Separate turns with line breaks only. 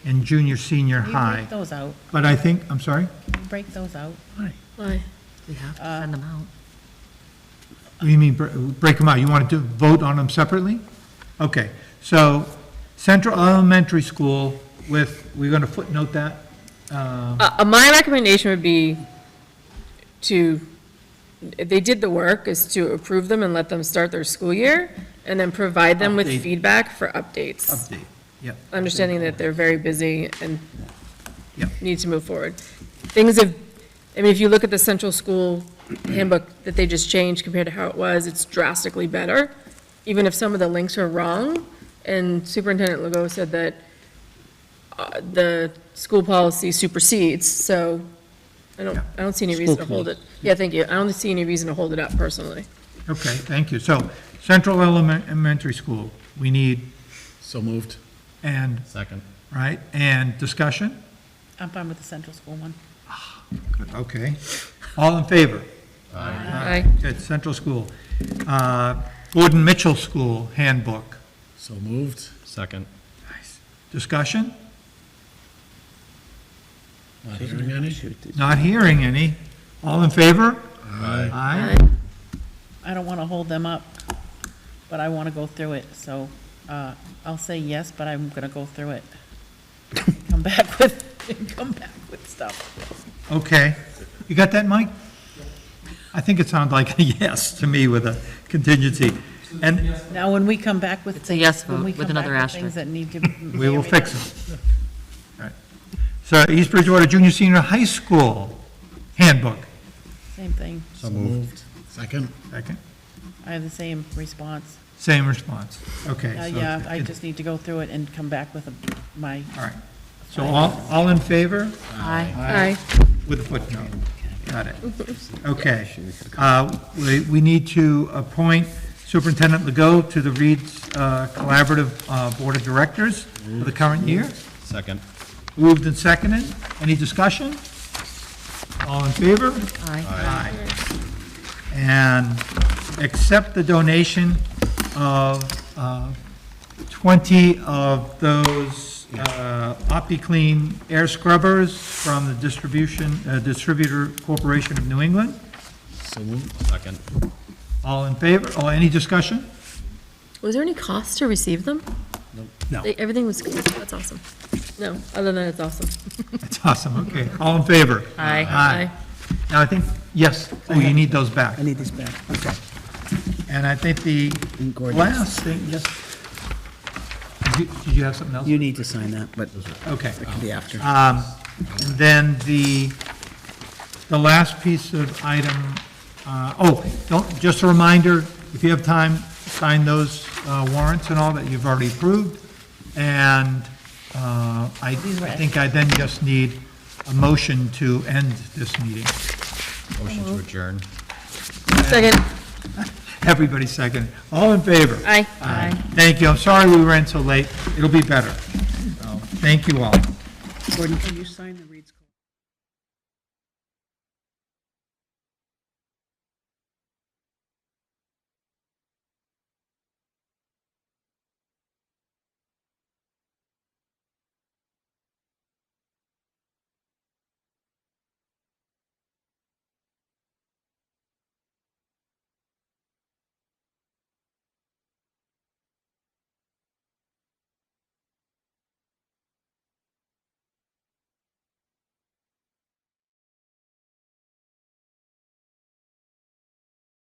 and junior, senior
You break
high.
those out,
But I think, I'm sorry?
You break those out. Uh,
Why?
Why? We have to send them out.
What do you mean, br- break them out? You want to do, vote on them separately? Okay, so Central Elementary School with, we're going to footnote that?
Uh, uh, my recommendation would be to, if they did the work, is to approve them and let them start their school year, and then provide them with
Update.
feedback for updates,
Update, yep.
understanding that they're very busy and
Yep.
need to move forward. Things have, I mean, if you look at the central school handbook that they just changed compared to how it was, it's drastically better, even if some of the links are wrong. And Superintendent Legault said that uh, the school policy supersedes, so I don't, I don't see any reason to hold it. Yeah, thank you. I don't see any reason to hold it up personally.
Okay, thank you. So Central Element- Elementary School, we need,
So moved.
and,
Second.
right, and discussion?
I'm fine with the central school one.
Okay. All in favor?
Aye.
Good, Central School. Uh, Gordon Mitchell School Handbook.
So moved. Second.
Nice. Discussion?
Not hearing any?
Not hearing any. All in favor?
Aye.
Aye.
I don't want to hold them up, but I want to go through it, so uh, I'll say yes, but I'm going to go through it. Come back with, come back with stuff.
Okay. You got that, Mike? I think it sounded like a yes to me with a contingency. And
Now, when we come back with.
It's a yes
when
vote
we
with
come
another
back Things
asterisk.
that need to.
we will fix them. All right. So East Bridgewater Junior Senior High School Handbook.
Same thing.
So moved. Second.
Second.
I have the same response.
Same response. Okay.
Uh,
so
Yeah, I
it-
just need to go through it and come back with a- my,
All right. So all, all in favor?
Aye.
Aye.
With a footnote. Got it. Okay. Uh, We we need to appoint Superintendent Legault to the Reed's uh, Collaborative uh, Board of Directors for the current year.
Second.
Moved and seconded. Any discussion? All in favor?
Aye.
Aye. And accept the donation of uh, 20 of those uh, OptiClean air scrubbers from the distribution, uh, Distributor Corporation of New England.
So moved. Second.
All in favor? Oh, any discussion?
Was there any cost to receive them?
No.
They- Everything was, that's awesome. No, other than it's awesome.
That's awesome, okay. All in favor?
Aye.
Aye. Now, I think, yes, oh, you need those back.
I need this back.
And I think the
And Gordon's.
last thing, yes. Did you- Did you have something else?
You need to sign that, but
Okay.
it can be after.
Um, And then the, the last piece of item, uh, oh, don't, just a reminder, if you have time, sign those uh, warrants and all that you've already approved. And uh, I I think I then just need a motion to end this meeting.
Motion to adjourn.
Second.
Everybody second. All in favor?
Aye.
Aye. Thank you. I'm sorry we ran so late. It'll be better. So, Thank you all.
Gordon, can you sign the Reed's?